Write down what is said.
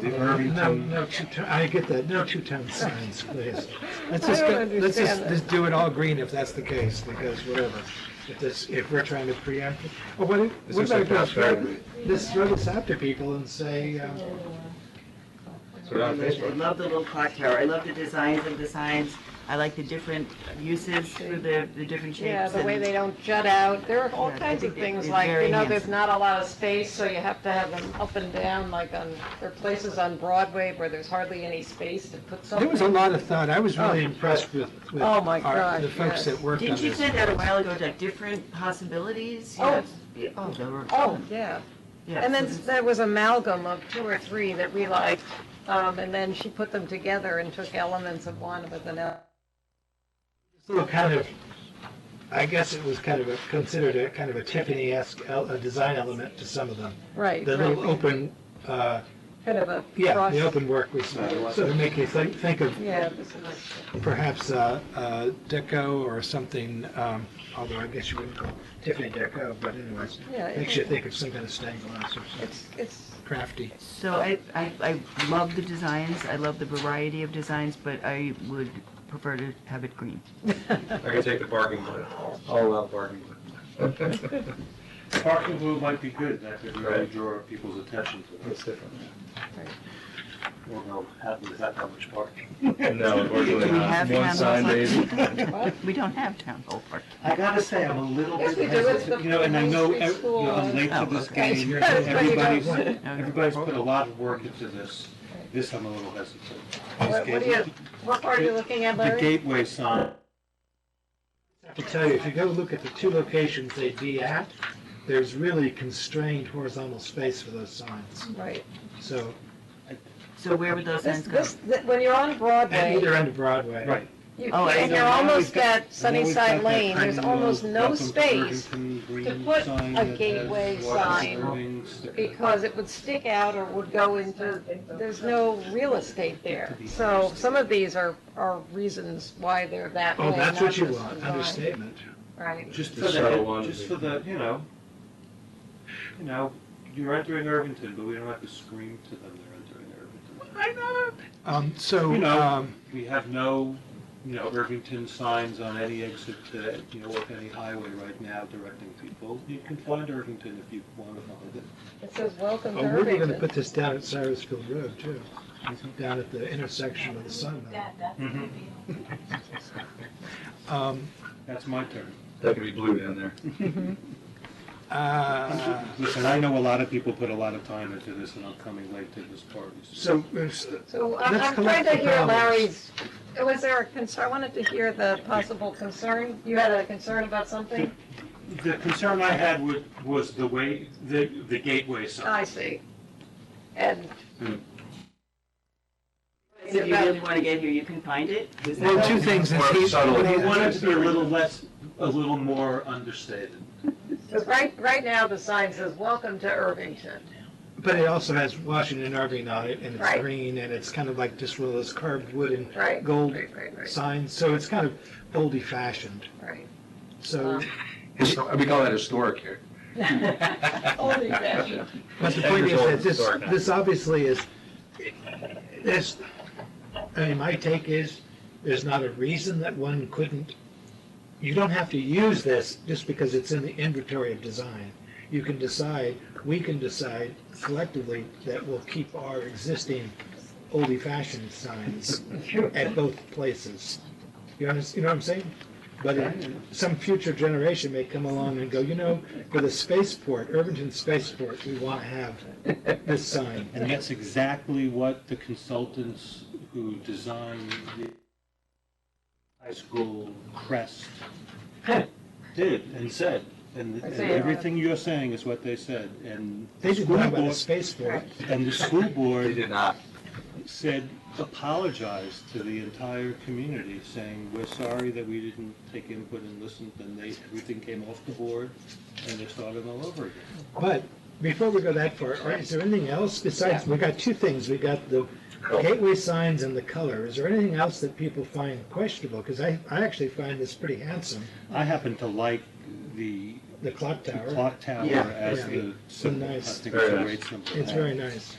the No, Irvington. no two-town, I get that, no two-town signs, please. Let's I just, don't go- let's just, understand just do it all green if that's the case, because whatever. If this, if we're trying to preempt, it. or what, if- This what is about if like we just transparent. throw- just throw this out to people and say, um, Put it on I Facebook. love the little cocktail. I love the designs of the signs. I like the different uses for the, the different shapes. Yeah, the way and- they don't jut out, there are all Yeah, kinds of it- it- things it's like, you very know, there's handsome. not a lot of space, so you have to have them up and down, like on, there are places on Broadway where there's hardly any space to put something. there was a lot of thought, I was really impressed with, with Oh, my our- the gosh, folks yes. that worked on Didn't you this. say that a while ago, that different possibilities? Oh. Yes. Yeah, Oh, they were Oh, fun. yeah. Yeah, And so then it's- there was amalgam of two or three that we liked, um, and then she put them together and took elements of one with another. little kind of, I guess it was kind of a, considered a kind of a Tiffany-esque el- a design element to some of them. Right, The little right, open, uh, kind of a yeah, cross. the open work was sort of make you think, think of Yeah, this is like- perhaps uh, uh, deco or something, um, although I guess you wouldn't call Tiffany deco, but anyways, Yeah, it- makes you think of some kind of stained glass or something it's, it's, crafty. So I, I, I love the designs. I love the variety of designs, but I would prefer to have it green. I can take the barking blue. All out barking blue. Parking blue might be good, that could really Right. draw people's attention to it. That's different. Although, happily, not that much parking. No, unfortunately Do we not. have One town sign, hall baby. We don't have town hall park. I gotta say, I'm a little Yes, bit we do. It's hesitant, the you know, and I know, elementary ev- you know, I'm late school. to this Oh, okay. game, That's where you go. everybody's, everybody's put a lot of work into this, this I'm a little hesitant. This what what are gate- you, what part are you looking at, The Larry? gateway sign, I have to tell you, if you go look at the two locations they'd be at, there's really constrained horizontal space for those signs. Right. So, So where would those This, signs go? this, th- when you're on at Broadway, either end of Broadway. right. you- Oh, I and see. you're Now we've almost got- now at we've got Sunnyside that Lane, tiny there's little almost no welcome to space Irvington green to put sign a that has gateway Watson sign Irving sticker. because it would stick out or would go into, there's no real estate there. So some of these are, are reasons why they're that way. Oh, that's what not you just want, design. understatement. Right. Just The for subtle the, ones just for we- the, you know, you know, you're entering Irvington, but we don't have to scream to them they're entering Irvington. Um, So, You know- um, We have no, you know, Irvington signs on any exit to, you know, with any highway right now directing people. You can find Irvington if you want to find it. It says, welcome oh, to we're going to Irvington. put this down at Cyrusville Road, too, down at the intersection of the Sun. Mm-hmm. Um, That's my turn. That could be blue down there. uh, Listen, I know a lot of people put a lot of time into this, and I'm coming late to this party. So, there's- So I- Let's I'm collect trying to the hear balance. Larry's, was there a concern, I wanted to hear the possible concern. You had a concern about something? The concern I had was, was the way, the, the gateway I sign. see. And. If you really want to get here, you can find it. Is that- well, two things. is he- subtle. what I he- wanted to be a little less, a little more understated. Because right, right now, the sign says, welcome to Irvington. But it also has Washington Irving on it, and it's Right. green, and it's kind of like just one of those carved wood Right. and gold Right, right, right. signs, so it's kind of oldie fashioned. Right. Uh-huh. So, Histo- We call that historic here. Only fashion. but the Ten point years is old that is this, historic now. this obviously is, this, I mean, my take is, there's not a reason that one couldn't, you don't have to use this just because it's in the inventory of design. You can decide, we can decide collectively that we'll keep our existing oldie fashioned signs at both places. You understand, you know what I'm saying? But it- some future generation may come along and go, you know, for the spaceport, Irvington Spaceport, we want to have this sign. And that's exactly what the consultants who designed the high school crest did and said. And and everything you're saying is what they said. And uh, They the did school not want a board, spaceport. and the school They board did not. said, apologized to the entire community, saying, we're sorry that we didn't take input and listen. And they, everything came off the board and they started all over again. But before we go that far, are- is there anything else besides, we got two things. We got the gateway signs and the color. Is there anything else that people find questionable? Because I, I actually find this pretty handsome, I happen to like the the clock the tower. clock tower Yeah. as Yeah. the symbol. I nice. think it's a Very great symbol. It's very nice.